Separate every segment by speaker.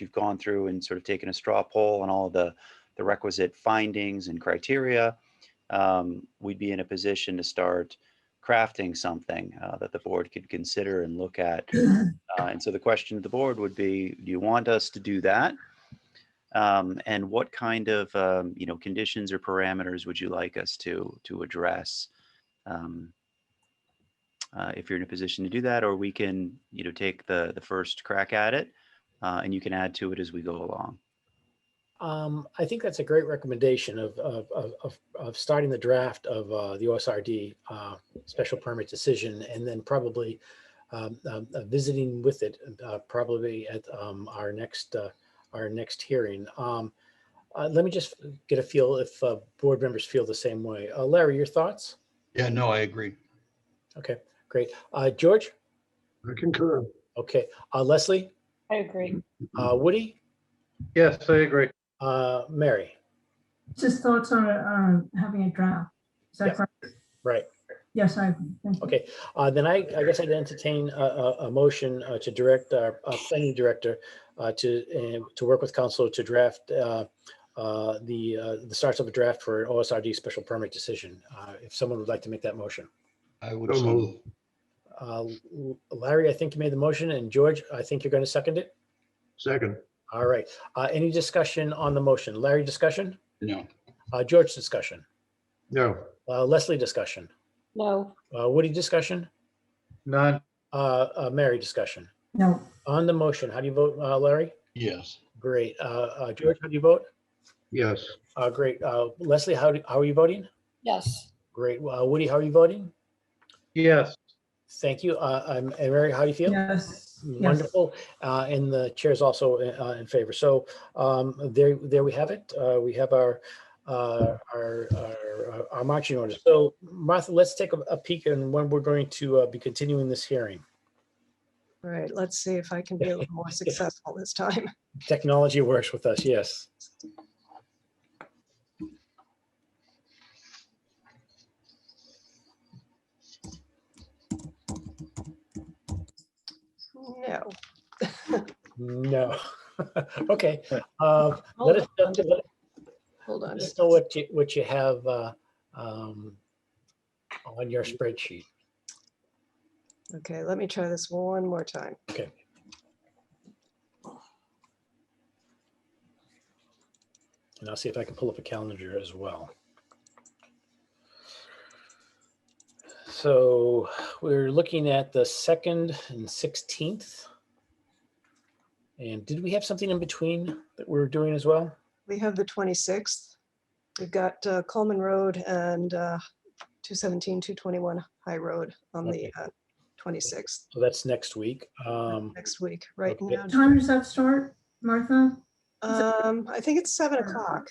Speaker 1: you've gone through and sort of taken a straw poll on all the, the requisite findings and criteria, um, we'd be in a position to start crafting something uh, that the board could consider and look at. Uh, and so the question to the board would be, do you want us to do that? Um, and what kind of, um, you know, conditions or parameters would you like us to, to address? Um, uh, if you're in a position to do that, or we can, you know, take the, the first crack at it, uh, and you can add to it as we go along.
Speaker 2: Um, I think that's a great recommendation of, of, of, of, of starting the draft of, uh, the OSRD, uh, special permit decision and then probably, um, um, uh, visiting with it, uh, probably at, um, our next, uh, our next hearing. Um, uh, let me just get a feel if, uh, board members feel the same way. Uh, Larry, your thoughts?
Speaker 3: Yeah, no, I agree.
Speaker 2: Okay, great. Uh, George?
Speaker 4: I concur.
Speaker 2: Okay. Uh, Leslie?
Speaker 5: I agree.
Speaker 6: Mm-hmm.
Speaker 2: Uh, Woody?
Speaker 4: Yes, I agree.
Speaker 2: Uh, Mary?
Speaker 6: Just thoughts on um, having a draft. Is
Speaker 2: Yeah.
Speaker 6: that correct?
Speaker 2: Right.
Speaker 6: Yes, I agree. Thank you.
Speaker 2: Okay, uh, then I, I guess I'd entertain a, a, a motion uh, to direct our, uh planning director uh, to, uh, to work with council to draft uh, uh, the, uh, the starts of a draft for OSRD special permit decision. Uh, If someone would like to make that motion.
Speaker 3: I would.
Speaker 4: So
Speaker 3: so
Speaker 4: moved.
Speaker 3: move.
Speaker 2: Uh, Larry, I think you made the motion and George, I think you're going to second it.
Speaker 4: Second,
Speaker 2: All right, Uh, any discussion on the motion? Larry, discussion?
Speaker 3: No,
Speaker 2: Uh, George, discussion?
Speaker 4: no,
Speaker 2: Uh, Leslie, discussion?
Speaker 5: No,
Speaker 2: Uh, Woody, discussion?
Speaker 4: none,
Speaker 2: Uh, uh, Mary, discussion?
Speaker 6: No,
Speaker 2: On the motion, how do you vote, uh, Larry?
Speaker 3: yes,
Speaker 2: Great. Uh, uh, George, how do you vote?
Speaker 4: yes,
Speaker 2: Uh, great. Uh, Leslie, how, do, how are you voting?
Speaker 5: yes,
Speaker 2: Great. Uh, Woody, how are you voting?
Speaker 4: yes,
Speaker 2: Thank you. Uh, I'm, and Mary, how do you feel?
Speaker 6: yes. yes.
Speaker 2: Wonderful. Uh, and the chair is also uh, in favor. So um, there, there we have it. Uh, we have our, uh, our, our, our marching orders. So Martha, let's take a, a peek and when we're going to uh, be continuing this hearing.
Speaker 7: All right, let's see if I can be a little more successful this time.
Speaker 2: Technology works with us. Yes.
Speaker 7: No.
Speaker 2: No. okay. Uh, let us,
Speaker 7: Hold on,
Speaker 2: let
Speaker 7: Hold on.
Speaker 2: Just know what you, what you have uh, um, on your spreadsheet.
Speaker 7: Okay, let me try this one more time.
Speaker 2: Okay. And I'll see if I can pull up a calendar as well. So we're looking at the 2nd and 16th. And did we have something in between that we're doing as well?
Speaker 7: We have the 26th. We've got uh, Coleman Road and uh, 217, 221 High Road on the
Speaker 2: Okay.
Speaker 7: uh, 26th
Speaker 2: So Oh, that's next week. Um,
Speaker 7: next week, right
Speaker 2: okay.
Speaker 7: now.
Speaker 6: Time does that start, Martha?
Speaker 7: Um, I think it's seven o'clock.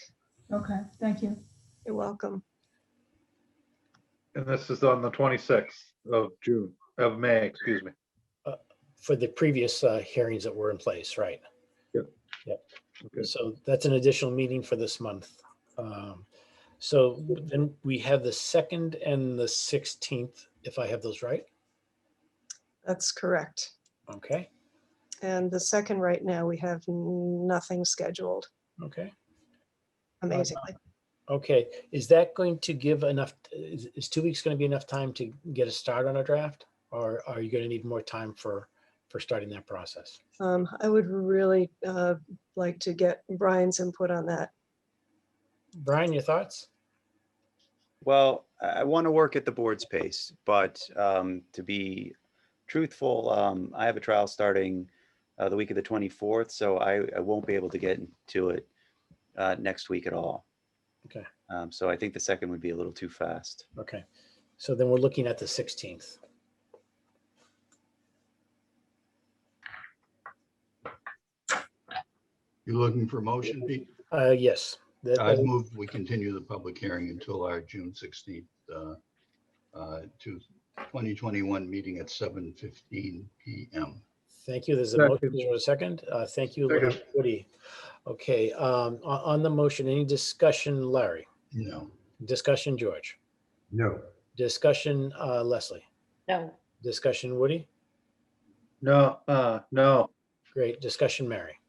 Speaker 6: Okay, thank you.
Speaker 7: You're welcome.
Speaker 4: and this is on the twenty-sixth of June, of May, excuse me.
Speaker 2: for the previous uh, hearings that were in place, right?
Speaker 4: Yep.
Speaker 2: Yep.
Speaker 4: Okay.
Speaker 2: So that's an additional meeting for this month. Um, So then we have the second and the 16th, if I have those right.
Speaker 7: That's correct.
Speaker 2: Okay,
Speaker 7: And the second, right now, we have nothing scheduled,
Speaker 2: okay,
Speaker 7: amazingly.
Speaker 2: okay. Is that going to give enough, is, is two weeks going to be enough time to get a start on a draft? Or are you going to need more time for, for starting that process?
Speaker 7: Um, I would really uh, like to get Brian's input on that.
Speaker 2: Brian, your thoughts?
Speaker 1: Well, I, I want to work at the board's pace, but um, to be truthful, um, I have a trial starting uh, the week of the 24th, so I, I won't be able to get to it uh, next week at all.
Speaker 2: Okay.
Speaker 1: Um, so I think the second would be a little too fast.
Speaker 2: Okay, so then we're looking at the 16th.
Speaker 3: you're looking for a motion, Pete?
Speaker 2: Uh, Yes. that-
Speaker 3: I
Speaker 2: that-
Speaker 3: move we continue the public hearing until our June sixteenth, uh, uh, to twenty twenty-one meeting at seven fifteen PM.
Speaker 2: Thank you. There's a
Speaker 4: Second.
Speaker 2: motion for a second. Uh, Thank you,
Speaker 4: Second.
Speaker 2: Woody. Okay, um, on, on the motion, any discussion, Larry?
Speaker 3: No,
Speaker 2: Discussion, George?
Speaker 4: No.
Speaker 2: Discussion, uh, Leslie?
Speaker 5: no,
Speaker 2: Discussion, Woody?
Speaker 4: No, uh, no,
Speaker 2: Great. Discussion, Mary?